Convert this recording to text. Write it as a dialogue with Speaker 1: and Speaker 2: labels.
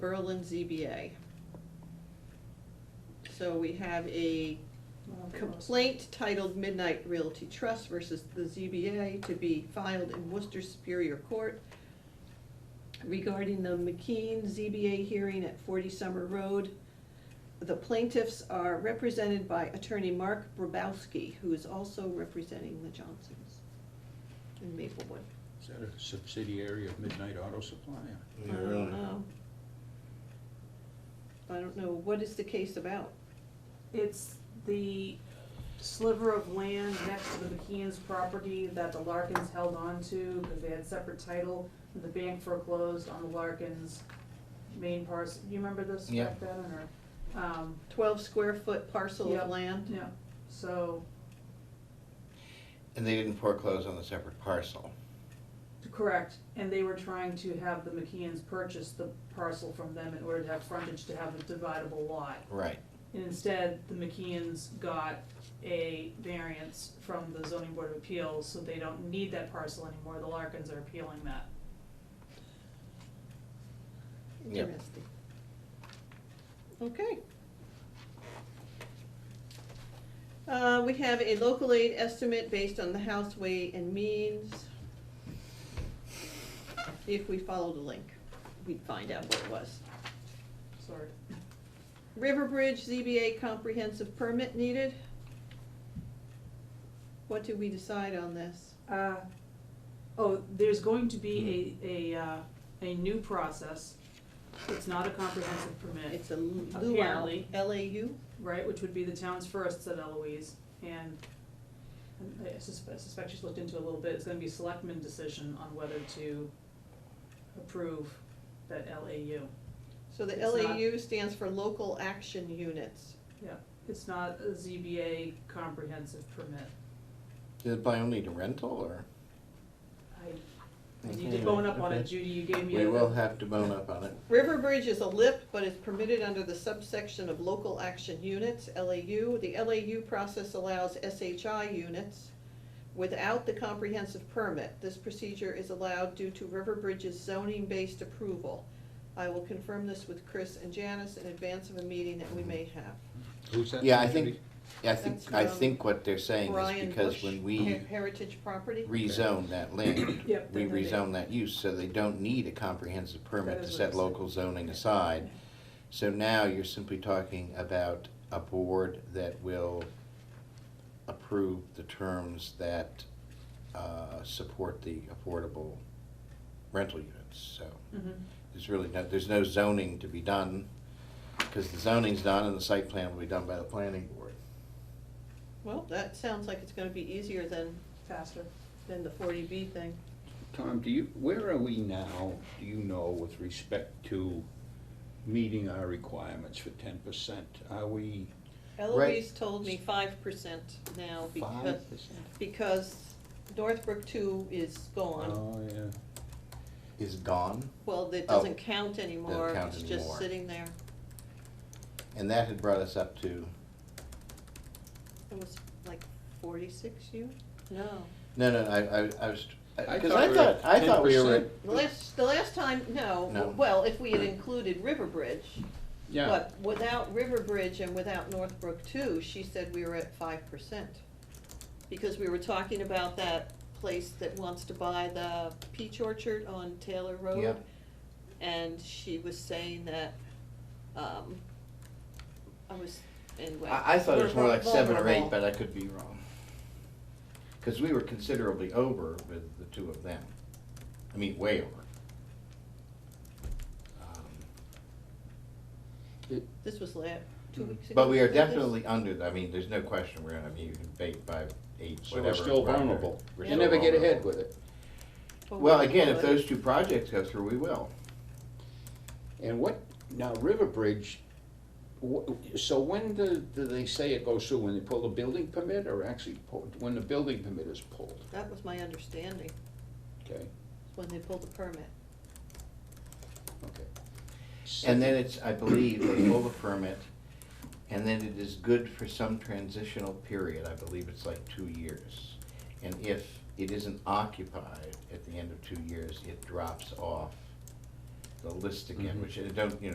Speaker 1: Berlin ZBA. So we have a complaint titled Midnight Realty Trust versus the ZBA to be filed in Worcester Superior Court regarding the McKean ZBA hearing at forty Summer Road. The plaintiffs are represented by attorney Mark Brabowski, who is also representing the Johnsons in Maplewood.
Speaker 2: Is that a subsidiary of Midnight Auto Supply?
Speaker 1: I don't
Speaker 3: Oh.
Speaker 1: know. I don't know, what is the case about?
Speaker 3: It's the sliver of land next to the McKeon's property that the Larkins held on to because they had separate title. and The bank foreclosed on the Larkins' main parcel. You remember this
Speaker 4: Yeah.
Speaker 3: back then or? Um,
Speaker 1: Twelve square foot parcel
Speaker 3: Yep.
Speaker 1: of land?
Speaker 3: yeah, so,
Speaker 4: And they didn't foreclose on the separate parcel.
Speaker 3: correct. And they were trying to have the McKeon's purchase the parcel from them in order to have frontage to have a dividable lot.
Speaker 4: Right.
Speaker 3: And instead, the McKeons got a variance from the zoning board of appeals, so they don't need that parcel anymore, the Larkins are appealing that.
Speaker 4: Yep.
Speaker 1: Interesting. Okay. Uh, we have a local aid estimate based on the house weight and means. If we followed a link, we'd find out what it was.
Speaker 3: Sorry.
Speaker 1: Riverbridge ZBA comprehensive permit needed. What did we decide on this?
Speaker 3: Uh, oh, there's going to be
Speaker 1: Hmm.
Speaker 3: a, a, uh, a new process, it's not a comprehensive permit,
Speaker 1: It's a luau,
Speaker 3: Apparently.
Speaker 1: L-A-U?
Speaker 3: right, which would be the town's first, said Eloise, and and I suspect, suspect she's looked into it a little bit, it's gonna be a selectman decision on whether to approve that LAU.
Speaker 1: So the
Speaker 3: It's not-
Speaker 1: LAU stands for local action units.
Speaker 3: Yeah, it's not a ZBA comprehensive permit.
Speaker 4: Did it buy only to rental or?
Speaker 3: I, I need to bone up on it, Judy, you gave me
Speaker 4: We
Speaker 3: a.
Speaker 4: will have to bone up on it.
Speaker 1: Riverbridge is a LIP, but it's permitted under the subsection of local action units, LAU. The LAU process allows SHI units without the comprehensive permit. This procedure is allowed due to Riverbridge's zoning-based approval. I will confirm this with Chris and Janice in advance of a meeting that we may have.
Speaker 2: Who's that?
Speaker 4: Yeah, I
Speaker 2: going to
Speaker 4: think, I think,
Speaker 1: That's
Speaker 4: I
Speaker 1: from
Speaker 3: um,
Speaker 4: think what they're saying is
Speaker 1: Brian
Speaker 4: because
Speaker 1: Bush,
Speaker 4: when
Speaker 1: Her-
Speaker 4: we
Speaker 1: Heritage Property?
Speaker 4: rezone that land,
Speaker 3: Yep,
Speaker 4: we
Speaker 3: then they-
Speaker 4: rezone that use, so they don't need a comprehensive permit
Speaker 3: That
Speaker 4: to
Speaker 3: is what I
Speaker 4: set
Speaker 3: said.
Speaker 4: local zoning aside. So now you're simply talking about a board that will approve the terms that uh, support the affordable rental units, so.
Speaker 3: Mhm.
Speaker 4: There's really no, there's no zoning to be done, because the zoning's done and the site plan will be done by the planning board.
Speaker 1: Well, that sounds like it's gonna be easier than,
Speaker 3: Faster.
Speaker 1: than the forty B thing.
Speaker 2: be? Tom, do you, where are we now, do you know, with respect to meeting our requirements for ten percent? Are we
Speaker 1: Eloise told me five percent now because,
Speaker 2: five percent?
Speaker 1: because Northbrook two is gone.
Speaker 2: Oh, yeah.
Speaker 4: Is gone,
Speaker 1: Well, it
Speaker 4: Oh.
Speaker 1: doesn't count anymore,
Speaker 4: count
Speaker 1: it's just
Speaker 4: anymore.
Speaker 1: sitting there.
Speaker 4: and that had brought us up to,
Speaker 1: It was like forty-six you? No.
Speaker 4: no, no, I, I, I was,
Speaker 2: I
Speaker 4: because
Speaker 2: thought
Speaker 4: I
Speaker 2: we were
Speaker 4: thought,
Speaker 2: at
Speaker 4: I thought we were at
Speaker 2: 10%.
Speaker 1: The last, the last time,
Speaker 4: No.
Speaker 1: no, well, if we had included Riverbridge.
Speaker 2: Yeah,
Speaker 1: But without Riverbridge and without Northbrook two, she said we were at five percent. Because we were talking about that place that wants to buy the peach orchard on Taylor Road.
Speaker 4: Yeah.
Speaker 1: And she was saying that, um, I was, anyway.
Speaker 4: I, I thought it was more like
Speaker 1: we're
Speaker 4: seven or eight,
Speaker 1: vulnerable.
Speaker 4: but I could be wrong. Because we were considerably over with the two of them. I mean, way over. Um,
Speaker 1: This was la, two weeks ago.
Speaker 4: But we are
Speaker 1: was this?
Speaker 4: definitely under, I mean, there's no question we're, I mean, you can bait by eight,
Speaker 2: so
Speaker 4: whatever.
Speaker 2: we're still
Speaker 4: under.
Speaker 2: vulnerable.
Speaker 4: We're
Speaker 2: You
Speaker 4: still
Speaker 2: never get ahead
Speaker 4: vulnerable.
Speaker 2: with it.
Speaker 1: But
Speaker 4: Well,
Speaker 1: we-
Speaker 4: again, if
Speaker 1: but-
Speaker 4: those two projects go through, we will.
Speaker 2: And what, now Riverbridge, wh- so when do, do they say it goes through, when they pull the building permit or actually pull, when the building permit is pulled,
Speaker 1: That was my understanding,
Speaker 2: okay,
Speaker 1: when they pulled the permit.
Speaker 2: okay.
Speaker 4: And then it's, I believe, they pull the permit, and then it is good for some transitional period, I believe it's like two years. And if it isn't occupied at the end of two years, it drops off the list again,
Speaker 2: Mhm.
Speaker 4: which I don't, you know,